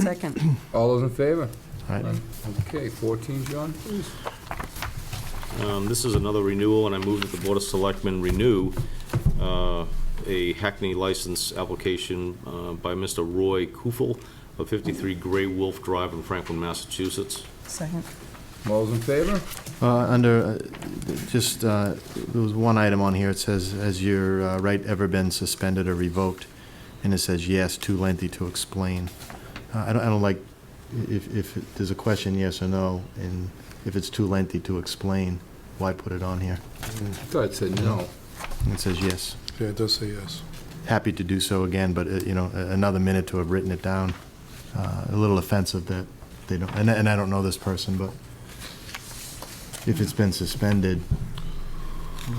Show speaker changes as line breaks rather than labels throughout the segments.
Second.
All those in favor?
Aye.
Okay, 14, John?
Um, This is another renewal, and I move that the Board of Selectmen renew uh, a Hackney license application uh, by Mr. Roy Kufel of 53 Gray Wolf Drive in Franklin, Massachusetts.
Second.
All those in favor?
Uh, Under, uh, just, uh, there was one item on here, it says, has your uh, right ever been suspended or revoked? And it says, yes, too lengthy to explain. Uh, I don't, I don't like, if, if there's a question, yes or no, and if it's too lengthy to explain, why put it on here?
I thought it said no.
And it says, yes.
Yeah, it does say yes.
Happy to do so again, but, uh, you know, a- another minute to have written it down. Uh, A little offensive that they don't, and, and I don't know this person, but if it's been suspended,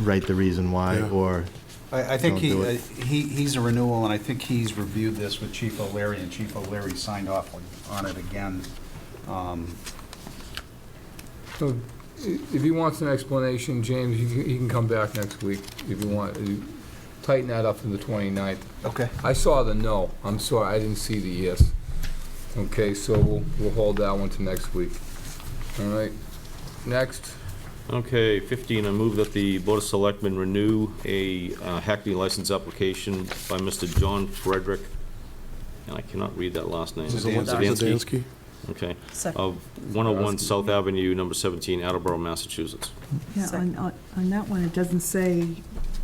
write the reason why,
Yeah.
or,
I, I think
Don't
he,
do
uh,
it.
he, he's a renewal, and I think he's reviewed this with Chief O'Leary, and Chief O'Leary signed off on it again. Um,
So i- if he wants an explanation, James, he can- he can come back next week if you want. You Tighten that up to the 29th.
Okay.
I saw the no. I'm sorry, I didn't see the yes. Okay, so we'll, we'll hold that one to next week. All right, next.
Okay, 15, I move that the Board of Selectmen renew a uh, Hackney license application by Mr. John Frederick, and I cannot read that last name.
Zdansky?
Zdansky? Okay,
Second.
of 101 South Avenue, number 17, Attleboro, Massachusetts.
Yeah, on, on- on that one, it doesn't say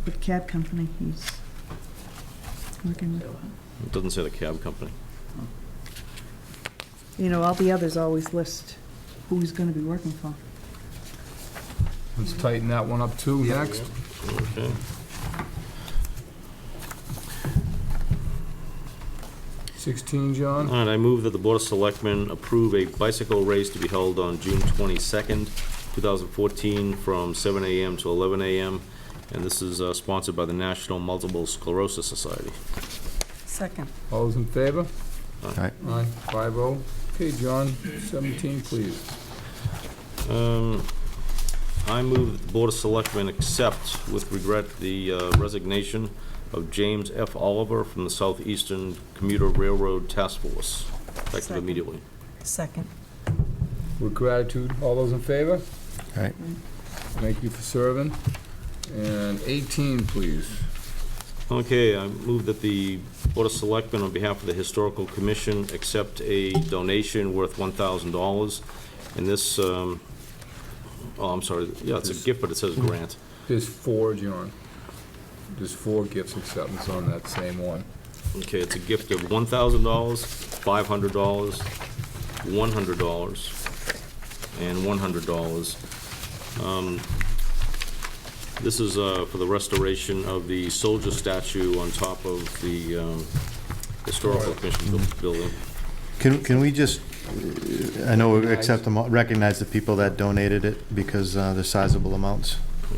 what cab company he's working with.
It doesn't say the cab company.
You know, all the others always list who he's gonna be working for.
Let's tighten that one up too, next.
Okay.
Sixteen, John?
All right, I move that the Board of Selectmen approve a bicycle race to be held on June 22nd, 2014, from 7 a.m. to 11 a.m., and this is uh, sponsored by the National Multiple Sclerosis Society.
Second.
All those in favor?
Aye.
Aye, five oh. Okay, John, seventeen, please.
Um, I move that the Board of Selectmen accept with regret the uh, resignation of James F. Oliver from the Southeastern Commuter Railroad Task Force, effective
Second.
immediately.
Second.
With gratitude, all those in favor?
Aye.
Thank you for serving. And eighteen, please.
Okay, I move that the Board of Selectmen, on behalf of the Historical Commission, accept a donation worth $1,000. And this, um, oh, I'm sorry, yeah, it's a gift, but it says grant.
There's four, John. There's four gifts acceptance on that same one.
Okay, it's a gift of $1,000, $500, $100, and $100. Um, This is uh, for the restoration of the soldier statue on top of the um, Historical Commission bu- building.
Can, can we just, uh, I know, we accept them, all- recognize the people that donated it, because uh, they're sizable amounts,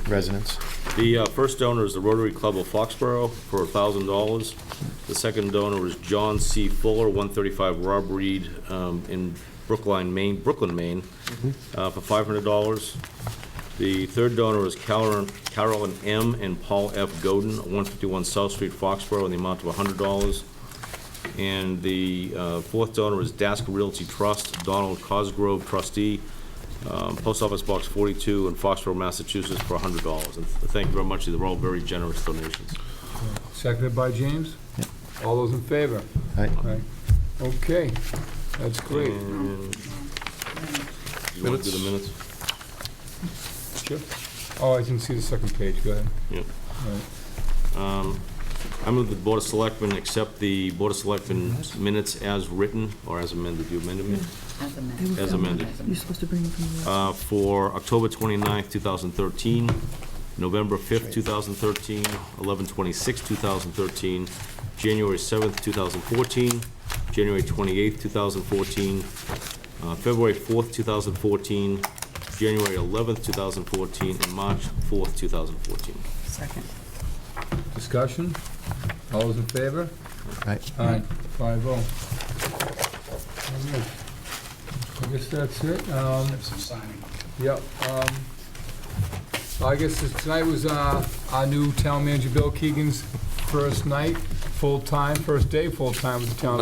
residents.
The uh, first donor is the Rotary Club of Foxborough for $1,000. The second donor is John C. Fuller, 135 Rob Reed um, in Brookline, Maine, Brooklyn, Maine, uh, for $500. The third donor is Carolyn Carolyn M. and Paul F. Godin, 151 South Street, Foxborough, in the amount of $100. And the uh, fourth donor is Dask Realty Trust, Donald Cosgrove trustee, um, Post Office Box 42 in Foxborough, Massachusetts, for $100. And thank you very much, these are all very generous donations.
Seconded by James? All those in favor?
Aye.
Aye. Okay, that's great.
And- You want to do the minutes?
Sure. Oh, I didn't see the second page, go ahead.
Yeah.
All right.
Um, I move the Board of Selectmen accept the Board of Selectmen minutes as written, or as amended, you amended me?
They were
As
from-
amended.
You're supposed to bring them from the.
Uh, For October 29th, 2013, November 5th, 2013, 11/26, 2013, January 7th, 2014, January 28th, 2014, uh, February 4th, 2014, January 11th, 2014, and March 4th, 2014.
Second.
Discussion? All those in favor?
Aye.
Aye, five oh. All right. I guess that's it. Um,
Have some signing.
Yep. um, I guess this- tonight was uh, our new town manager, Bill Keegan's first night, full-time, first day full-time with the town